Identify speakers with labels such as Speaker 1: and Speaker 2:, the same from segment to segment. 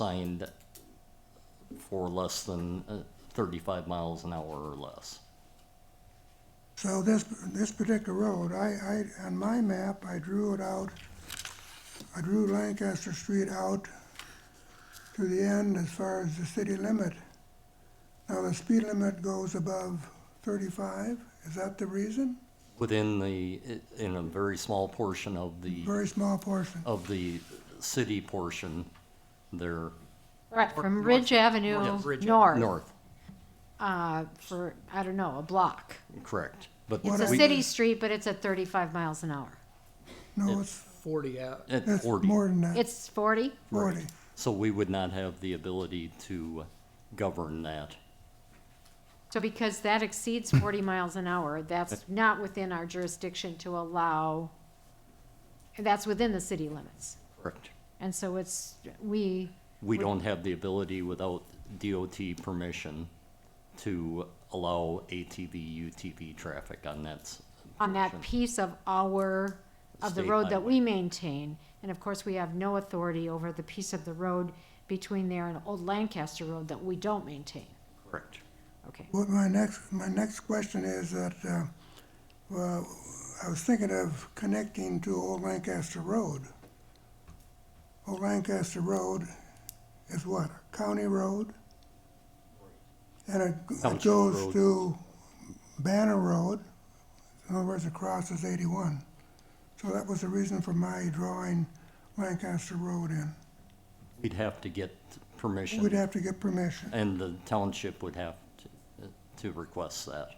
Speaker 1: signed for less than uh, 35 miles an hour or less.
Speaker 2: So this, this particular road, I, I, on my map, I drew it out, I drew Lancaster Street out to the end as far as the city limit. Now, the speed limit goes above thirty-five, is that the reason?
Speaker 1: Within the, i- in a very small portion of the,
Speaker 2: Very small portion.
Speaker 1: of the city portion there,
Speaker 3: Right, from Ridge Avenue north,
Speaker 1: north,
Speaker 3: uh, for, I don't know, a block.
Speaker 1: correct. But
Speaker 3: It's a
Speaker 1: we-
Speaker 3: city street, but it's at thirty-five miles an hour.
Speaker 2: No, it's,
Speaker 4: forty out.
Speaker 1: At
Speaker 2: it's
Speaker 1: 40.
Speaker 2: more than that,
Speaker 3: It's forty?
Speaker 2: forty.
Speaker 1: So we would not have the ability to govern that.
Speaker 3: So because that exceeds forty miles an hour, that's not within our jurisdiction to allow, that's within the city limits.
Speaker 1: Correct.
Speaker 3: And so it's, we,
Speaker 1: We don't have the ability without DOT permission to allow ATV, UTV traffic on that. s-
Speaker 3: on that
Speaker 1: portion.
Speaker 3: piece of our, of the
Speaker 1: State
Speaker 3: road that
Speaker 1: highway.
Speaker 3: we maintain. And of course, we have no authority over the piece of the road between there and Old Lancaster Road that we don't maintain.
Speaker 1: Correct.
Speaker 3: Okay.
Speaker 2: Well, my next, my next question is that, uh, well, I was thinking of connecting to Old Lancaster Road. Old Lancaster Road is what, a county road? And it- it
Speaker 1: Township
Speaker 2: goes
Speaker 1: road.
Speaker 2: to Banner Road, in other words, it crosses eighty-one. So that was the reason for my drawing Lancaster Road in.
Speaker 1: We'd have to get
Speaker 2: We'd
Speaker 1: permission,
Speaker 2: have to get permission.
Speaker 1: and the township would have to, to request that.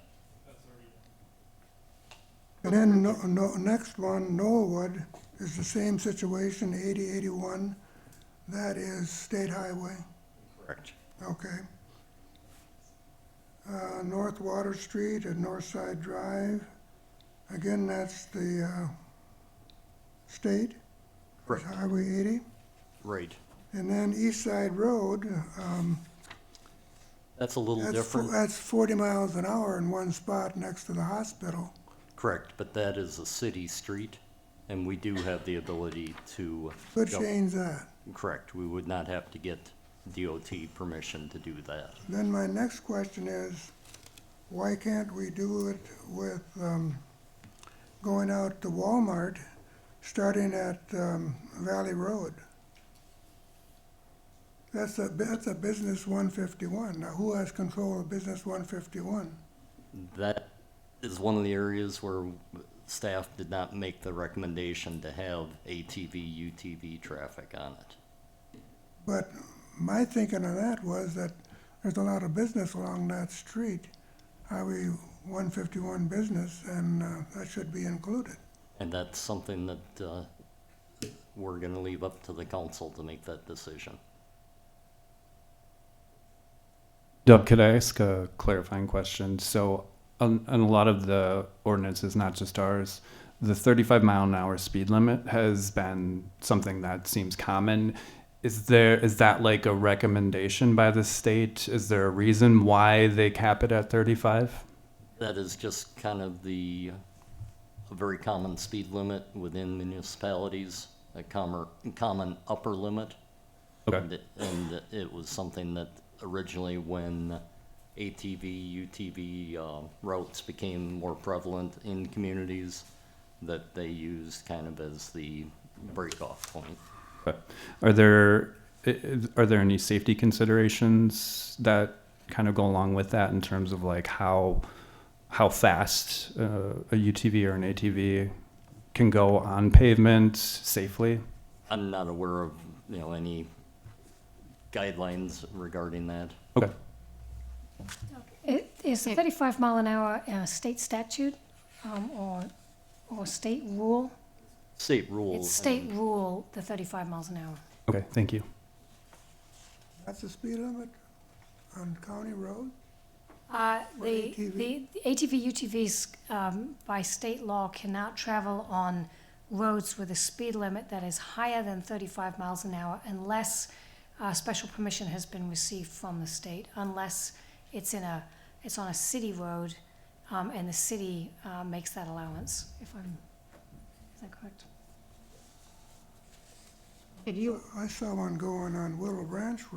Speaker 2: And then no, no, next one, Norwood, is the same situation, eighty, eighty-one, that is state highway,
Speaker 1: Correct.
Speaker 2: okay. Uh, North Water Street and North Side Drive, again, that's the, uh, state,
Speaker 1: Correct,
Speaker 2: Highway eighty.
Speaker 1: right.
Speaker 2: And then East Side Road, um,
Speaker 1: That's a little
Speaker 2: that's, fo-
Speaker 1: different,
Speaker 2: that's forty miles an hour in one spot next to the hospital.
Speaker 1: correct, but that is a city street, and we do have the ability to.
Speaker 2: Could
Speaker 1: gov-
Speaker 2: change that.
Speaker 1: Correct, we would not have to get DOT permission to do that.
Speaker 2: Then my next question is, why can't we do it with, um, going out to Walmart, starting at, um, Valley Road? That's a, that's a business one fifty-one. Now, who has control of business one fifty-one?
Speaker 1: That is one of the areas where staff did not make the recommendation to have ATV, UTV traffic on it.
Speaker 2: But my thinking of that was that there's a lot of business along that street, Highway one fifty-one business, and, uh, that should be included.
Speaker 1: And that's something that, uh, we're gonna leave up to the council to make that decision.
Speaker 5: Doug, could I ask a clarifying question? So, on, on a lot of the ordinances, not just ours, the 35 mile an hour speed limit has been something that seems common. Is there is that like a recommendation by the state? Is there a reason why they cap it at 35?
Speaker 1: That is just kind of the, a very common speed limit within municipalities, a commer, common upper limit. And, and it was something that originally when ATV, UTV uh, routes became more prevalent in communities, that they used kind of as the break-off point.
Speaker 5: Okay. Are there i- i- are there any safety considerations that kind of go along with that in terms of like how how fast uh, a UTV or an ATV can go on pavement safely?
Speaker 1: I'm not aware of, you know, any guidelines regarding that.
Speaker 5: Okay.
Speaker 6: It- Is the
Speaker 3: Yeah.
Speaker 6: thirty-five mile an hour a state statute, um, or, or state rule?
Speaker 1: State rules.
Speaker 6: It's state rule, the thirty-five miles an hour.
Speaker 5: Okay. Thank you.
Speaker 2: That's the speed limit on county road?
Speaker 6: Uh,
Speaker 2: For
Speaker 6: the,
Speaker 2: ATV?
Speaker 6: the the ATV, UTVs, um, by state law cannot travel on roads with a speed limit that is higher than thirty-five miles an hour unless, uh, special permission has been received from the state, unless it's in a, it's on a city road, um, and the city, uh, makes that allowance, if I'm, is that correct?
Speaker 3: Did you,
Speaker 2: I saw one going on Willow Branch